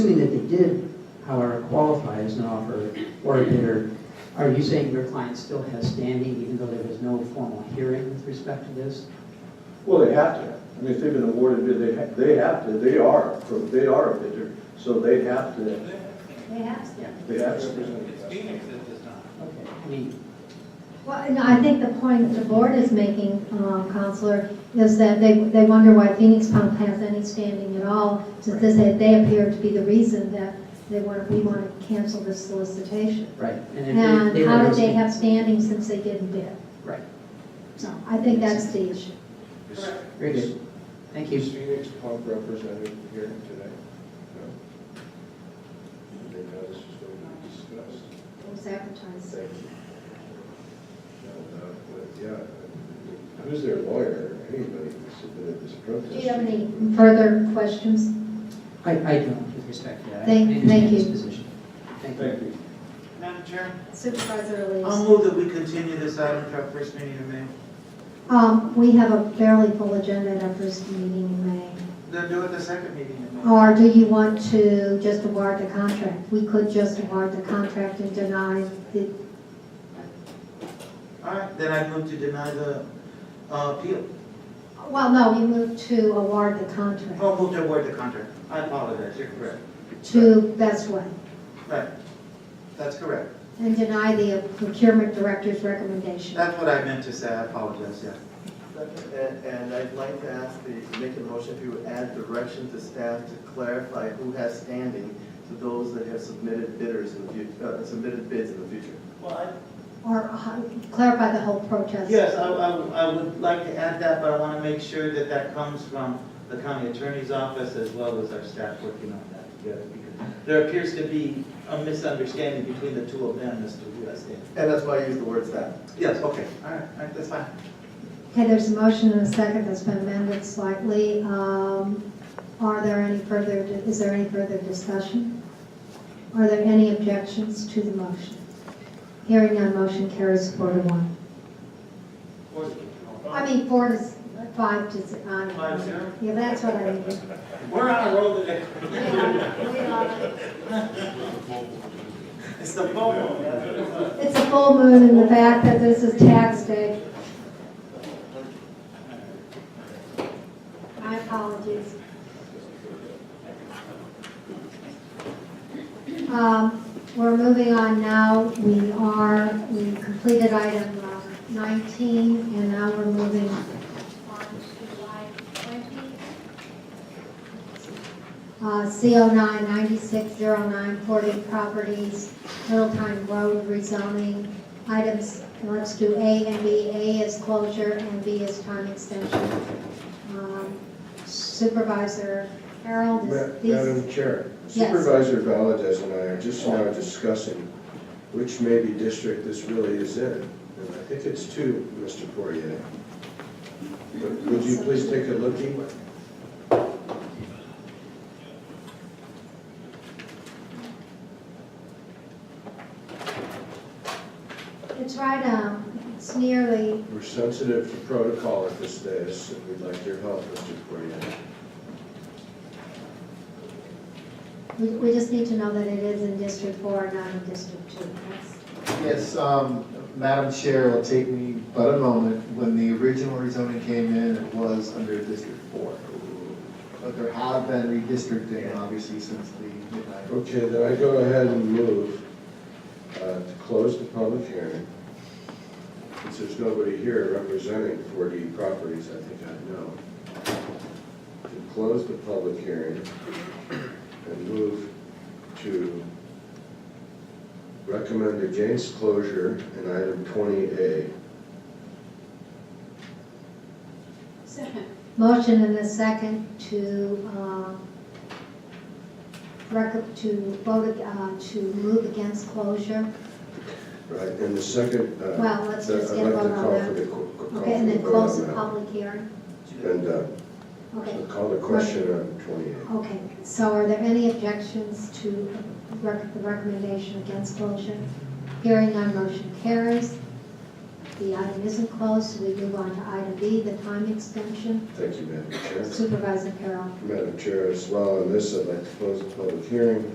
however qualified as an offer or a bidder, are you saying your client still has standing even though there was no formal hearing with respect to this? Well, they have to. I mean, if they've been awarded bid, they, ha- they have to, they are, they are a bidder, so they have to, They have to. they have to. It's Phoenix that does not. Okay, I mean, Well, and I think the point the board is making, um, Counselor, is that they, they wonder why Phoenix Pump has any standing at all, since this- they, they appear to be the reason that they want, we want to cancel this solicitation. right. And if they- And they how were did they listening- have standing since they didn't bid? Right, So I think that's the issue. very good. Thank Is you. Phoenix Pump represented here today? No. They know this is going to be discussed. It was advertised. Thank you. No, no, but, yeah, I mean, who's their lawyer, anybody who submitted this protest? Do you have any further questions? I, I don't with respect to that. I Thank- thank understand his you. position. Thank you. Thank you. Madam Chair, Supervisor I'll Elias? move that we continue this item to our first meeting in May. Um, we have a fairly full agenda at our first meeting in May. Then do it the second meeting in May. Or do you want to just award the contract? We could just award the contract and deny the, All right, then I move to deny the uh, appeal. well, no, we move to award the contract Oh, move to award the contract. I apologize, you're correct. to Best Way Right, that's correct. and deny the procurement director's recommendation. That's what I meant to say, I apologize, yeah. And, and I'd like to ask the, make a motion to add direction to staff to clarify who has standing to those that have submitted bidders in the fut, uh, submitted bids in the future. Well, Or uh, clarify the whole protest. Yes, I, I, I would like to add that, but I want to make sure that that comes from the county attorney's office as well as our staff working on that together. because There appears to be a misunderstanding between the two of them as to who has standing. And that's why I use the word staff. Yes, okay, all right, all right, that's fine. Okay, there's a motion and a second that's been amended slightly. Um, Are there any further, is there any further discussion? Are there any objections to the motion? Hearing none, motion carries four to one. I mean, four to, s- five to, s- I don't Five know. zero? Yeah, that's what I mean. We're on a roll today. It's the bubble. It's a full moon and the fact that this is tax day. My apologies. Um, We're moving on now. We are, we completed item uh, 19, and now we're moving on to item 20. Uh, CO nine ninety-six zero nine forty properties, Littletime Road rezoning. Items, let's do A and B. A is closure and B is time extension. Um, Supervisor Harold, Ma- is these, Madam Chair, Yes. Supervisor Valdez and I are just now discussing which maybe district this really is in. And I think it's two, Mr. Poirier. But Would you please take a lookie? it's right, um, it's nearly, We're sensitive to protocol at this stage, so we'd like your help, Mr. Poirier. we, we just need to know that it is in District Four, not in District Two. That's- Yes, um, Madam Chair, it'll take me but a moment. When the original rezoning came in, it was under District Four. But there have been redistricting, obviously, since the midnight. Okay, then I go ahead and move uh, to close the public hearing. Since there's nobody here representing 4D properties, I think I know. To close the public hearing and move to recommend against closure in item 20A. Motion and a second to, uh, rec- to vote, uh, to move against closure. Right, and the second, uh, Well, let's the- just I'd get a like vote to call for on that. the co- co- call Okay, and for then the vote close on the that. public hearing. And uh, Okay, I'll call the question on 28. okay. So are there any objections to rec- the recommendation against closure? Hearing none, motion carries. The item isn't closed, so we move on to item B, the time extension. Thank you, Madam Chair. Supervisor Carroll. Madam Chair, as well, on this, I'd like to close the public hearing